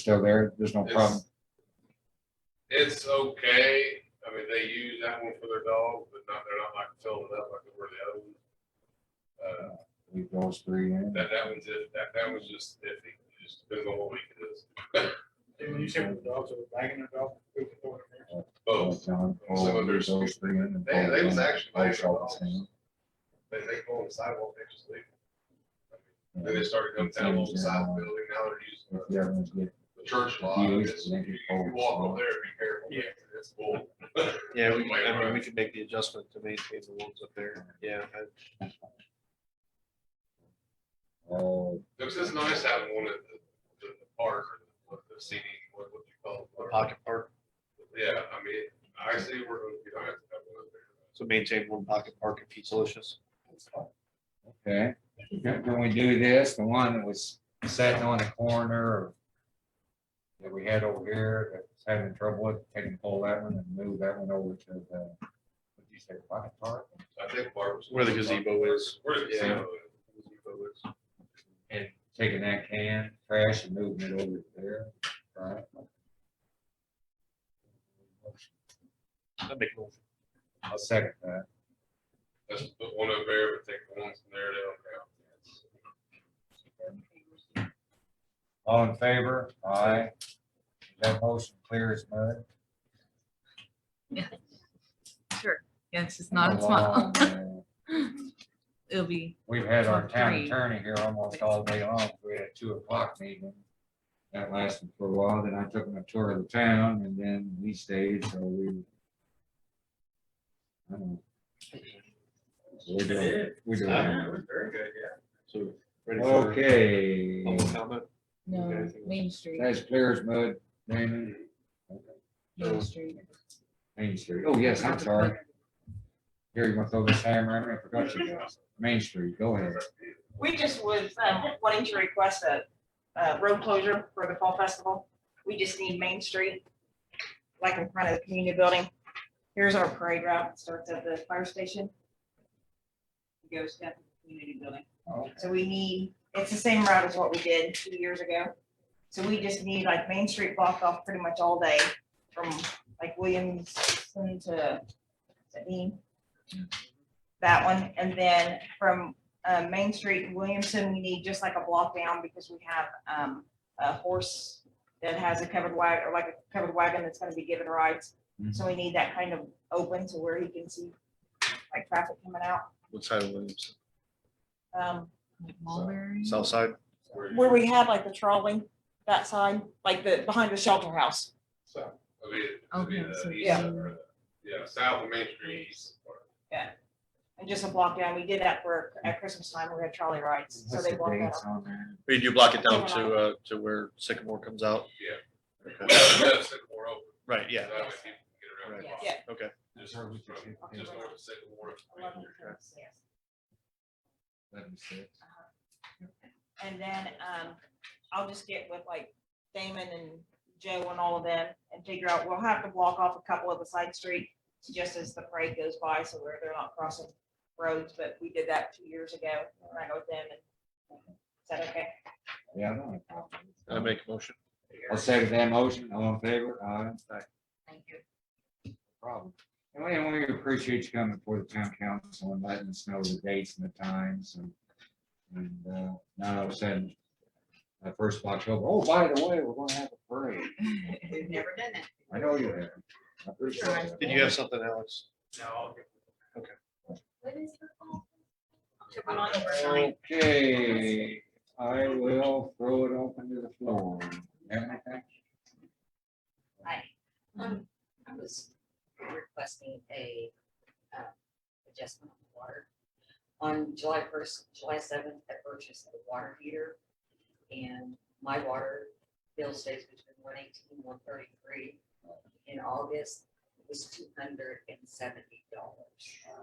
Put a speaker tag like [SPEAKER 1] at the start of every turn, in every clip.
[SPEAKER 1] still there, there's no problem.
[SPEAKER 2] It's- It's okay. I mean, they use that one for their dog, but not, they're not like filling it up like they were the other ones. Uh,
[SPEAKER 1] Leave those three in.
[SPEAKER 2] that, that one's just, that, that was just iffy. It Just depends on what week it is.
[SPEAKER 3] When you say when the dogs are wagging their dog, who's the dog?
[SPEAKER 2] Both.
[SPEAKER 1] John,
[SPEAKER 2] Some
[SPEAKER 1] Paul,
[SPEAKER 2] of
[SPEAKER 1] leave
[SPEAKER 2] there's-
[SPEAKER 1] those three in. and
[SPEAKER 2] They, they was
[SPEAKER 1] Paul,
[SPEAKER 2] actually.
[SPEAKER 1] Paul
[SPEAKER 2] laying their
[SPEAKER 1] shot
[SPEAKER 2] dogs.
[SPEAKER 1] the same.
[SPEAKER 2] They, they go on the sidewalk, they just leave. Then they started coming
[SPEAKER 1] Yeah.
[SPEAKER 2] down along the side of the building. Now they're
[SPEAKER 1] If
[SPEAKER 2] using
[SPEAKER 1] the
[SPEAKER 2] the-
[SPEAKER 1] other ones get-
[SPEAKER 2] the church lot.
[SPEAKER 1] Yeah.
[SPEAKER 2] It's- You you walk over there, be careful.
[SPEAKER 3] Yeah.
[SPEAKER 2] It's full.
[SPEAKER 4] Yeah, we, can- I mean, we can make the adjustment to maintain the ones up there, yeah. I-
[SPEAKER 1] Uh,
[SPEAKER 2] It's just nice having one at the, the the park or the- the CD, what, what you call
[SPEAKER 4] the
[SPEAKER 2] it.
[SPEAKER 4] Pocket park,
[SPEAKER 2] Yeah, I mean, I see where, you know, I have to have one up there.
[SPEAKER 4] so maintain one pocket park at Pizza Licious.
[SPEAKER 1] Okay, Can- can we do this, the one that was sitting on the corner or that we had over here that was having trouble with, can you pull that one and move that one over to the, what you say, pocket park?
[SPEAKER 2] I think Barbara's.
[SPEAKER 4] Where the gazebo is.
[SPEAKER 2] Where the
[SPEAKER 4] Yeah.
[SPEAKER 2] gazebo is.
[SPEAKER 1] And taking that can, trash and moving it over there, right?
[SPEAKER 4] That'd make more-
[SPEAKER 1] I'll second that.
[SPEAKER 2] Let's put one over there, but take the ones from there down.
[SPEAKER 1] All in favor? Aye. That motion clear as mud.
[SPEAKER 5] Sure, yeah, it's just not a small.
[SPEAKER 1] Along,
[SPEAKER 5] It'll be,
[SPEAKER 1] We've had our town
[SPEAKER 5] Three.
[SPEAKER 1] attorney here almost all day long. We had a two o'clock meeting. That lasted for a while, then I took him a tour of the town and then we stayed, so we. I don't know. We're doing, we're doing.
[SPEAKER 2] Very good, yeah.
[SPEAKER 4] So. ready for
[SPEAKER 1] Okay,
[SPEAKER 4] Public comment?
[SPEAKER 5] no,
[SPEAKER 4] Okay.
[SPEAKER 5] Main Street,
[SPEAKER 1] that's clear as mud, Damon.
[SPEAKER 5] Main Street.
[SPEAKER 1] Main Street. Oh, yes, I'm sorry. Here, you want to throw this hammer at me? I forgot you. Main Street, go ahead.
[SPEAKER 6] We just was um, wanting to request a uh, road closure for the fall festival. We just need Main Street, like in front of the community building. Here's our parade route. It starts at the fire station. It Goes down to the community building.
[SPEAKER 1] Oh,
[SPEAKER 6] So we need, it's the same route as what we did two years ago. So we just need like Main Street blocked off pretty much all day from like Williamson to Sabine. That one, and then from uh, Main Street to Williamson, we need just like a block down because we have um, a horse that has a covered wagon, or like a covered wagon that's gonna be given rides. So we need that kind of open to where he can see like traffic coming out.
[SPEAKER 4] What side of Williams?
[SPEAKER 6] Um,
[SPEAKER 5] like Mulberry.
[SPEAKER 4] South side?
[SPEAKER 2] Where
[SPEAKER 6] where
[SPEAKER 2] you-
[SPEAKER 6] we had like the trolley, that side, like the, behind the shelter house.
[SPEAKER 2] So, I mean, I mean,
[SPEAKER 5] Okay,
[SPEAKER 2] the
[SPEAKER 5] so
[SPEAKER 2] east
[SPEAKER 6] yeah.
[SPEAKER 2] side or the- Yeah, south of Main Street. east part.
[SPEAKER 6] And just a block down, we did that for, at Christmas time, we had trolley rides, so
[SPEAKER 1] What's
[SPEAKER 6] they
[SPEAKER 1] the
[SPEAKER 6] walked that
[SPEAKER 1] dates
[SPEAKER 6] up.
[SPEAKER 1] on there?
[SPEAKER 4] Or you do block it down to, uh, to where Sycamore comes out?
[SPEAKER 2] Yeah.
[SPEAKER 4] Okay.
[SPEAKER 2] Yeah, Sycamore Open.
[SPEAKER 4] Right, yeah,
[SPEAKER 2] That way people can get around the
[SPEAKER 6] Yes.
[SPEAKER 2] block.
[SPEAKER 6] Yeah.
[SPEAKER 4] okay.
[SPEAKER 2] Just from- just north of Sycamore.
[SPEAKER 6] Eleven trips, yes.
[SPEAKER 1] Let me see.
[SPEAKER 6] And then, um, I'll just get with like Damon and Joe and all of them and figure out, we'll have to block off a couple of the side street just as the parade goes by, so where they're not crossing roads, but we did that two years ago, and I go with them and is that okay?
[SPEAKER 1] Yeah, I don't have a problem.
[SPEAKER 4] I make a motion.
[SPEAKER 1] I'll second that motion, all in favor, aye, no
[SPEAKER 5] Thank you.
[SPEAKER 1] problem. And we- and we appreciate you coming before the town council and letting us know the dates and the times and, and, uh, now all of a sudden, uh, first of October, oh, by the way, we're gonna have a parade,
[SPEAKER 5] We've never done that.
[SPEAKER 1] I know you have, I appreciate it.
[SPEAKER 4] Did you have something, Alex?
[SPEAKER 3] No.
[SPEAKER 1] Okay, I will throw it open to the floor. Anything?
[SPEAKER 7] Hi, um, I was requesting a, uh, adjustment on the water. On July first, July seventh, I purchased a water heater and my water bill stays between 118 and 133. In August, it was two hundred and seventy dollars.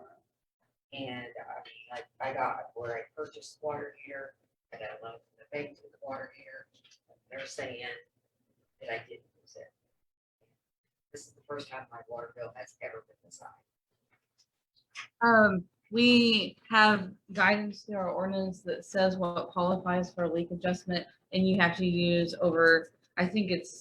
[SPEAKER 7] And I, mean, like, I got where I purchased water heater, I got a loan from the bank for the water heater. They're saying that I didn't use it. This is the first time my water bill has ever been this high.
[SPEAKER 5] Um, we have guidance through our ordinance that says what qualifies for a leak adjustment and you have to use over I think it's